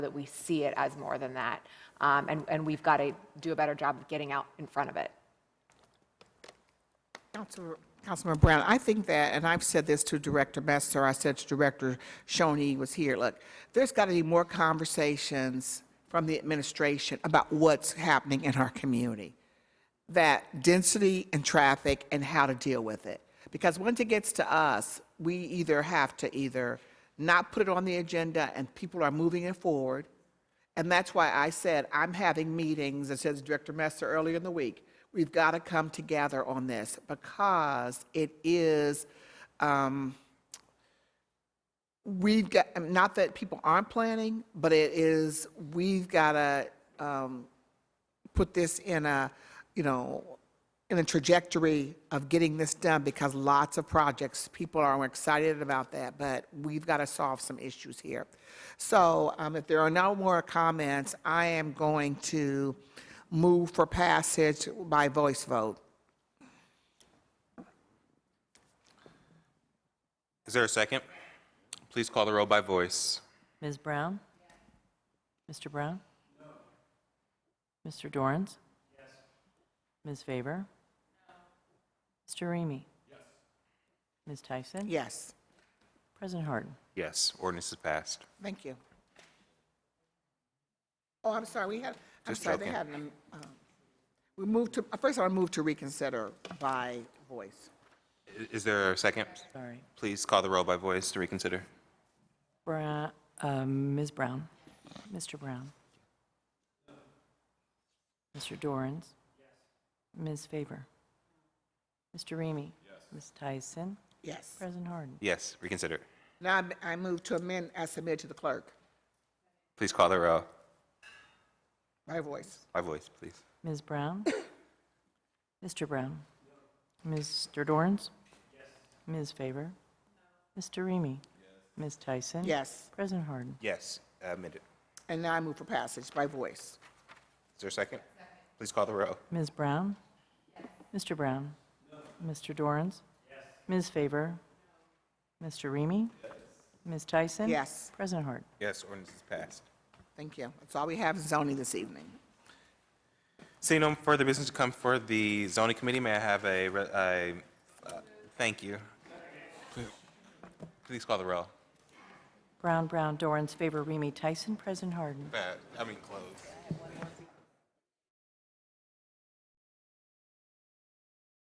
that we see it as more than that. Um, And, and we've got to do a better job of getting out in front of it. Councilor- Councilman Brown, I think that, and I've said this to Director Messer, I said to Director Shoney was here, look, there's got to be more conversations from the administration about what's happening in our community. That density and traffic and how to deal with it. Because once it gets to us, we either have to either not put it on the agenda and people are moving it forward, and that's why I said, I'm having meetings, it says Director Messer earlier in the week. We've got to come together on this because it is, um, we've got, not that people aren't planning, but it is, we've got to, um, put this in a, you know, in a trajectory of getting this done because lots of projects, people are excited about that, but we've got to solve some issues here. So um, if there are no more comments, I am going to move for passage by voice vote. Is there a second? Please call the roll by voice. Ms. Brown? Mr. Brown? Mr. Dorans? Ms. Faber? Mr. Remy? Ms. Tyson? Yes, President Harden? Yes, ordinance is passed. thank you. Oh, I'm sorry, we had, I'm Just sorry, they joking. had, an, um, we moved to, uh, first I moved to reconsider by voice. I- Is there a second? Sorry. Please call the roll by voice to reconsider. Bra- uh, Ms. Brown? Mr. Brown? Mr. Dorans? Ms. Faber? Mr. Remy? Ms. Tyson? Yes. President Harden? Yes, reconsider. Now I'm- I move to amend as submitted to the clerk Please call the roll by voice. by voice, please. Ms. Brown? Mr. Brown? Mr. Dorns? Ms. Faber? Mr. Remy? Ms. Tyson? Yes. President Harden? Yes, amended. And now I move for passage by voice. Is there a second? Please call the roll. Ms. Brown? Mr. Brown? Mr. Dorans? Ms. Faber? Mr. Remy? Ms. Tyson? Yes. President Harden? Yes, ordinance is passed. Thank you. That's all we have in zoning this evening. Seeing no further business to come for the zoning committee, may I have a, re- a, uh, thank you. Please call the roll. Brown, Brown, Dorans, Faber, Remy, Tyson? President Harden? Uh, I mean, close.